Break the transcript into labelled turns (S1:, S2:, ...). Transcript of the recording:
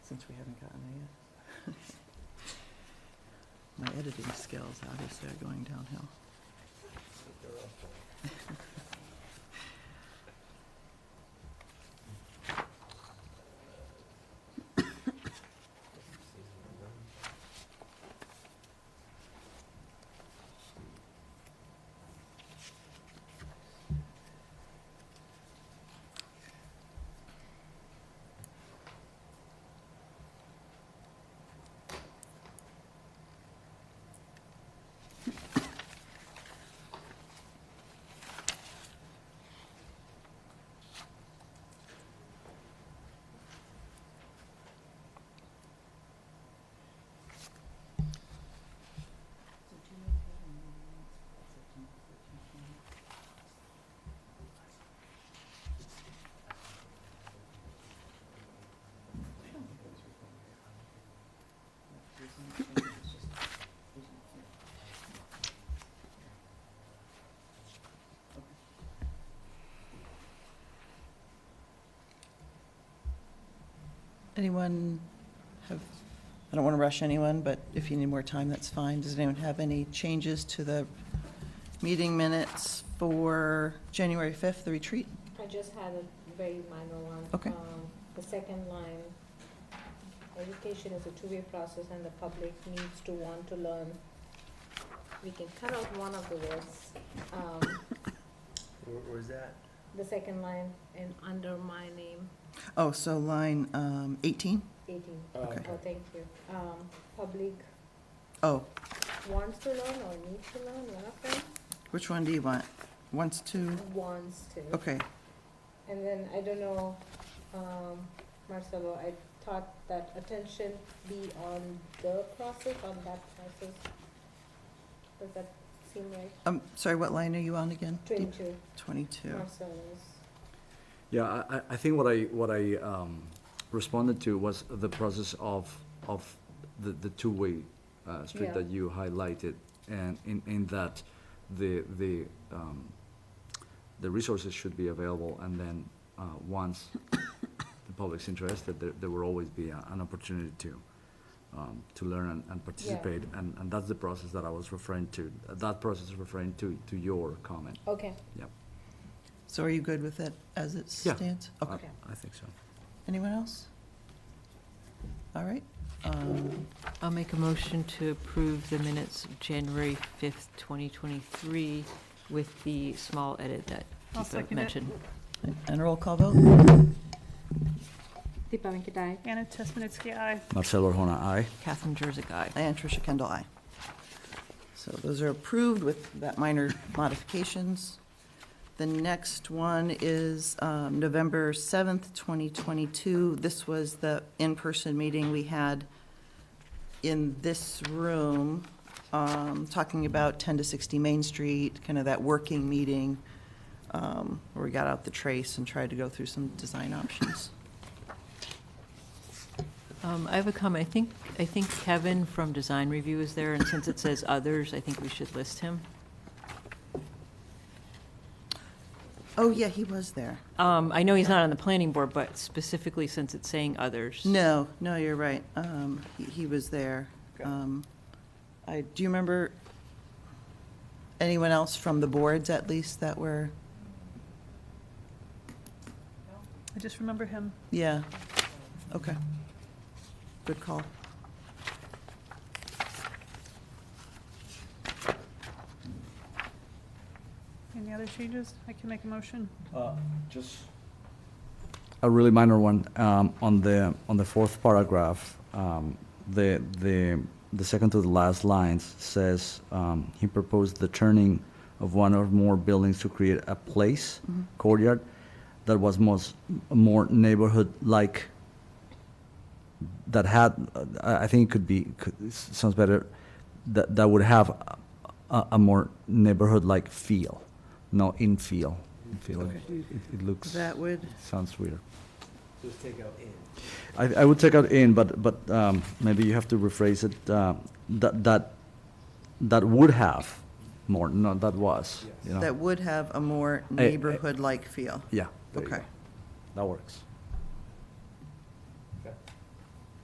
S1: since we haven't gotten there yet. My editing skills, obviously, are going downhill. Anyone have, I don't want to rush anyone, but if you need more time, that's fine. Does anyone have any changes to the meeting minutes for January 5th, the retreat?
S2: I just had a very minor one.
S1: Okay.
S2: Um, The second line, education is a two-way process and the public needs to want to learn. We can cut out one of the words, um,
S3: Where, where's that?
S2: the second line, and under my name,
S1: Oh, so line um, 18?
S2: eighteen.
S1: Okay.
S2: Oh, thank you. Um, Public
S1: Oh,
S2: wants to learn or needs to learn, one of them,
S1: which one do you want? Wants to,
S2: wants to.
S1: okay.
S2: And then, I don't know, um, Marcelo, I thought that attention be on the process, on that process. Does that seem right?
S1: I'm um, sorry, what line are you on again?
S2: Twenty-two,
S1: 22.
S2: Marcelo's.
S4: Yeah, I, I- I think what I, what I um, responded to was the process of, of the, the two-way uh, street
S2: Yeah.
S4: that you highlighted, and in, in that the, the, um, the resources should be available, and then uh, once the public's interested, there, there will always be a- an opportunity to, um, to learn and- and participate, and, and that's the process that I was referring to, that process is referring to, to your comment.
S2: Okay,
S1: So are you good with it as it
S4: Yeah.
S1: stands?
S4: I-
S1: Okay.
S4: I think so.
S1: Anyone else? All right. um,
S5: I'll make a motion to approve the minutes of January 5th, 2023, with the small edit that
S6: I'll
S5: Deepa
S6: second it.
S5: mentioned.
S1: And a roll call vote?
S2: Deepa Venkatai.
S6: Anna Tesmanitsky, aye.
S4: Marcelo Hona, aye.
S5: Catherine Jersey, aye.
S1: And Tricia Kendall, aye. So those are approved with that minor modifications. The next one is um, November 7th, 2022. This was the in-person meeting we had in this room, um, talking about 10 to 60 Main Street, kind of that working meeting, um, where we got out the trace and tried to go through some design options.
S5: Um, I have a comment. I think, I think Kevin from Design Review is there, and since it says others, I think we should list him.
S1: Oh, yeah, he was there.
S5: Um, I know he's not on the planning board, but specifically since it's saying others.
S1: No, no, you're right. Um, he, he was there.
S3: Okay.
S1: Um, I, do you remember anyone else from the boards at least that were,
S6: I just remember him.
S1: yeah, okay. Good call.
S6: Any other changes? I can make a motion.
S4: Uh, Just. A really minor one, um, on the, on the fourth paragraph, um, the, the, the second to the last lines says, um, he proposed the turning of one or more buildings to create a place, courtyard, that was most, more neighborhood-like, that had, uh, I, I think it could be, could, it sounds better, that, that would have a- a, a more neighborhood-like feel, no in feel. In feel,
S1: Okay.
S4: it, it looks,
S1: That would,
S4: sounds weird.
S3: Just take out in.
S4: I, I would take out in, but, but, um, maybe you have to rephrase it, uh, that, that, that would have more, not that was, you know?
S1: that would have a more
S4: eh.
S1: neighborhood-like feel.
S4: Yeah. there you
S1: Okay.
S4: go. That works.